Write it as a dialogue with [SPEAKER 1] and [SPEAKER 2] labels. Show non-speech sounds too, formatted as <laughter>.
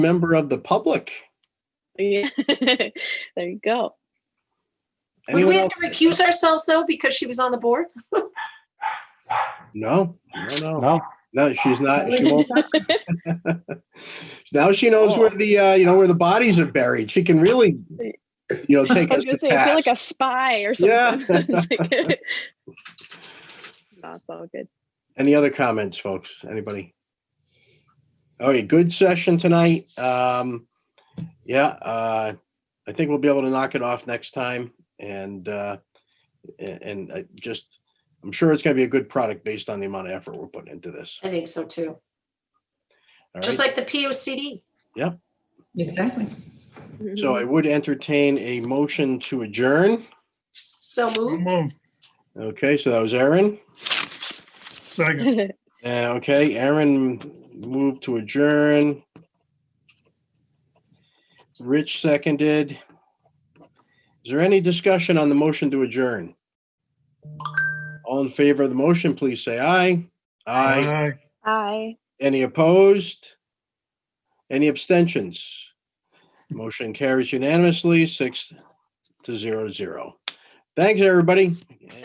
[SPEAKER 1] member of the public.
[SPEAKER 2] Yeah. <laughs> There you go.
[SPEAKER 3] Would
[SPEAKER 1] Anyone
[SPEAKER 3] we have
[SPEAKER 1] else?
[SPEAKER 3] to recuse ourselves though, because she was on the board?
[SPEAKER 1] No, no, no,
[SPEAKER 4] No,
[SPEAKER 1] no, she's not, she
[SPEAKER 2] <laughs>
[SPEAKER 1] won't. <laughs> Now she knows where the, uh, you know, where the bodies are buried. She can really, you know, take
[SPEAKER 2] I
[SPEAKER 1] us
[SPEAKER 2] was
[SPEAKER 1] to
[SPEAKER 2] gonna say, I feel like
[SPEAKER 1] task.
[SPEAKER 2] a spy or
[SPEAKER 1] Yeah.
[SPEAKER 2] something. <laughs>
[SPEAKER 1] <laughs>
[SPEAKER 2] That's all good.
[SPEAKER 1] Any other comments, folks? Anybody? All right, good session tonight. Um, yeah, uh, I think we'll be able to knock it off next time and, uh, a- and I just, I'm sure it's gonna be a good product based on the amount of effort we're putting into this.
[SPEAKER 3] I think so too,
[SPEAKER 1] All
[SPEAKER 3] just
[SPEAKER 1] right,
[SPEAKER 3] like the POCD.
[SPEAKER 5] Exactly.
[SPEAKER 1] so I would entertain a motion to adjourn.
[SPEAKER 3] So moved.
[SPEAKER 6] Move,
[SPEAKER 1] Okay, so that was Aaron.
[SPEAKER 6] second.
[SPEAKER 1] Uh, okay, Aaron moved to adjourn. Rich seconded. Is there any discussion on the motion to adjourn? All in favor of the motion, please say aye. Aye.
[SPEAKER 6] Aye.
[SPEAKER 2] <laughs> Hi.
[SPEAKER 1] Any opposed? Any abstentions? Motion carries unanimously, six to zero zero. Thanks, everybody.